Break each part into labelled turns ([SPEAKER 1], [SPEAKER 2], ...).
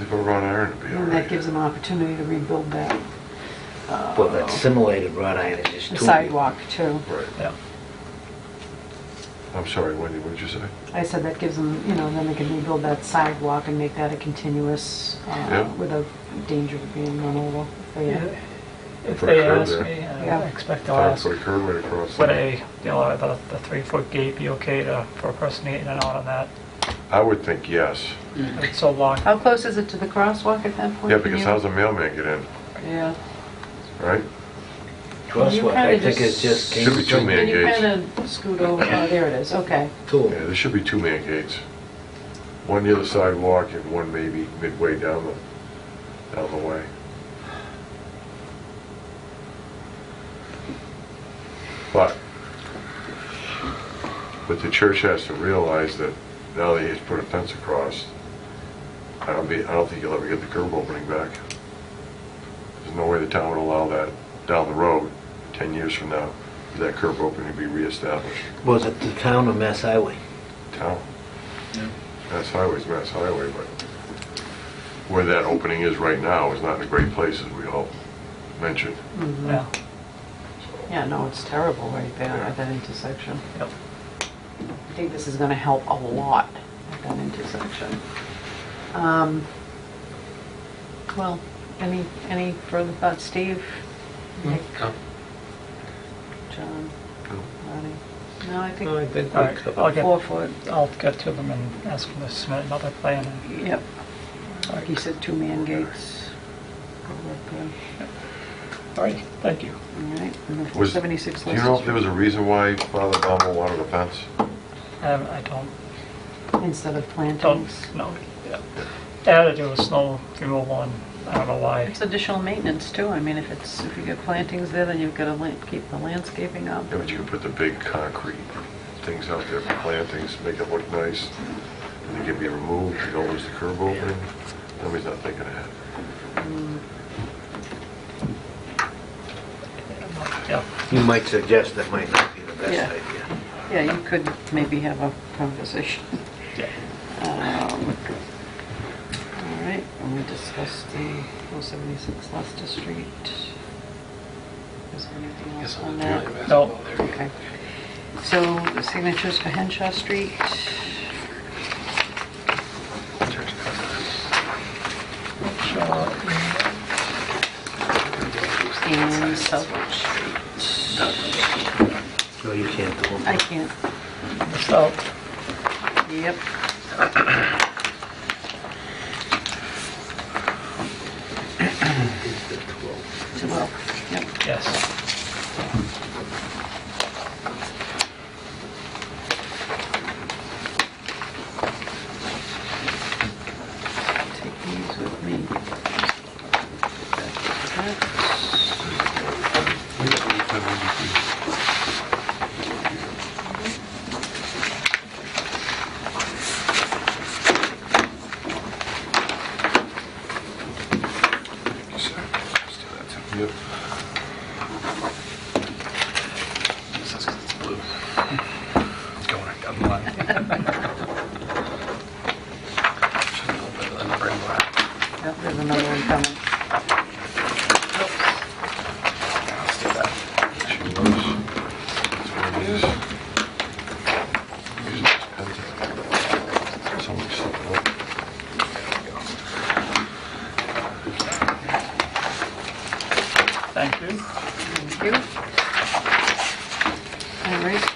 [SPEAKER 1] If I run iron, it'd be all
[SPEAKER 2] And that gives
[SPEAKER 1] right.
[SPEAKER 2] them an opportunity to rebuild that uh,
[SPEAKER 3] Well, that simulated wrought iron is just too...
[SPEAKER 2] sidewalk too.
[SPEAKER 1] Right.
[SPEAKER 3] Yeah.
[SPEAKER 1] I'm sorry, Wendy, what did you say?
[SPEAKER 2] I said that gives them, you know, then they can rebuild that sidewalk and make that a continuous, uh,
[SPEAKER 1] Yeah.
[SPEAKER 2] without danger of being run over. So, yeah.
[SPEAKER 4] Yeah, If
[SPEAKER 1] Put a
[SPEAKER 4] they
[SPEAKER 1] curb
[SPEAKER 4] ask
[SPEAKER 1] there.
[SPEAKER 4] me, I
[SPEAKER 2] Yeah.
[SPEAKER 4] expect they'll
[SPEAKER 1] Time to
[SPEAKER 4] ask,
[SPEAKER 1] put a curb right across.
[SPEAKER 4] would
[SPEAKER 1] there.
[SPEAKER 4] a, you know, the, the three-foot gate be okay to, for a person eating and out on that?
[SPEAKER 1] I would think yes.
[SPEAKER 4] It's so long,
[SPEAKER 2] How close is it to the crosswalk at that point?
[SPEAKER 1] Yeah,
[SPEAKER 2] Can
[SPEAKER 1] because
[SPEAKER 2] you-
[SPEAKER 1] how's a mailman get in,
[SPEAKER 2] Yeah.
[SPEAKER 1] right?
[SPEAKER 3] Crosswalk, I think it's just...
[SPEAKER 1] Should be two man
[SPEAKER 2] Can you
[SPEAKER 1] gates.
[SPEAKER 2] kind of scoot over, oh, there it is, okay.
[SPEAKER 3] Two.
[SPEAKER 1] Yeah, there should be two man gates. One near the sidewalk and one maybe midway down the, down the way. But, but the church has to realize that now that he's put a fence across, I don't be, I don't think you'll ever get the curb opening back. There's no way the town would allow that down the road, 10 years from now, for that curb opening to be reestablished.
[SPEAKER 3] Was it the town of Mass Highway?
[SPEAKER 1] Town. Mass Highway's Mass Highway, but where that opening is right now is not in a great place, as we all mentioned.
[SPEAKER 2] Mhm.
[SPEAKER 4] yeah.
[SPEAKER 2] Yeah, no, it's terrible right there
[SPEAKER 1] Yeah.
[SPEAKER 2] at that intersection.
[SPEAKER 4] Yep.
[SPEAKER 2] I think this is going to help a lot at that intersection. Um, Well, any, any further thoughts, Steve? Nick? John? Ronnie? No, I
[SPEAKER 5] No, I
[SPEAKER 2] think
[SPEAKER 5] think
[SPEAKER 4] All
[SPEAKER 5] we
[SPEAKER 4] right, I'll
[SPEAKER 5] covered.
[SPEAKER 2] four
[SPEAKER 4] get,
[SPEAKER 2] foot,
[SPEAKER 4] I'll get to them and ask them to submit another plan. and-
[SPEAKER 2] yep. Like he said, two man gates. All up there.
[SPEAKER 4] All right, thank you.
[SPEAKER 2] All right, and the
[SPEAKER 1] Was-
[SPEAKER 2] 76
[SPEAKER 1] Do you know if there
[SPEAKER 2] license
[SPEAKER 1] was a reason why Father Baumel wanted a fence?
[SPEAKER 4] Um, I don't,
[SPEAKER 2] instead
[SPEAKER 5] Oh.
[SPEAKER 2] of plantings.
[SPEAKER 4] don't, no. yeah. They had to do with snow removal and I don't know why.
[SPEAKER 2] It's additional maintenance too. I mean, if it's, if you get plantings there, then you've got to keep the landscaping up.
[SPEAKER 1] Yeah, but you could put the big concrete things out there for plantings, make it look nice, and they can be removed, you don't lose the curb opening. Nobody's not thinking ahead.
[SPEAKER 4] Yeah,
[SPEAKER 3] You might suggest that might not be the
[SPEAKER 2] Yeah.
[SPEAKER 3] best idea.
[SPEAKER 2] Yeah, you could maybe have a conversation.
[SPEAKER 4] yeah.
[SPEAKER 2] Um, All right, and we discussed the 476 Leicester Street. Is there anything else on that?
[SPEAKER 4] No,
[SPEAKER 2] Okay. So the signatures for Henshaw Street. And Southwood Street.
[SPEAKER 3] No, you can't do them.
[SPEAKER 2] I can't,
[SPEAKER 4] so,
[SPEAKER 2] yep.
[SPEAKER 3] It's the 12.
[SPEAKER 2] Well, Yep.
[SPEAKER 4] yes.
[SPEAKER 2] Take these with me.
[SPEAKER 1] Yep.
[SPEAKER 2] Yep, there's another one coming. Oops.
[SPEAKER 1] She knows. That's what it is. Use this pencil. Someone slip it up.
[SPEAKER 4] Thank you.
[SPEAKER 2] Thank you. All right.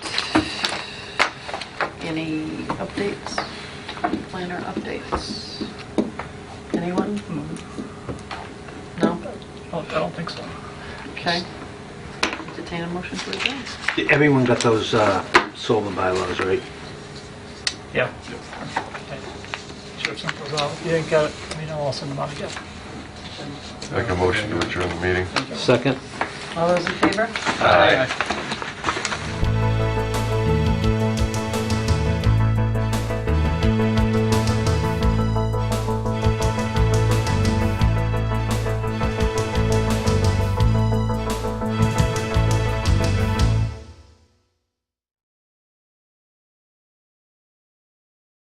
[SPEAKER 2] Any updates? Planner updates? Anyone? No?
[SPEAKER 4] No, I don't think so.
[SPEAKER 2] Okay. Entertain a motion to adjourn.
[SPEAKER 3] Everyone got those uh, solar bylaws, right?
[SPEAKER 4] Yeah. Okay. Sure, simple as that. If you didn't get it, let me know, I'll send them out again.
[SPEAKER 1] Make a motion to adjourn the meeting.
[SPEAKER 3] Second?
[SPEAKER 2] All those in favor?
[SPEAKER 4] Aye.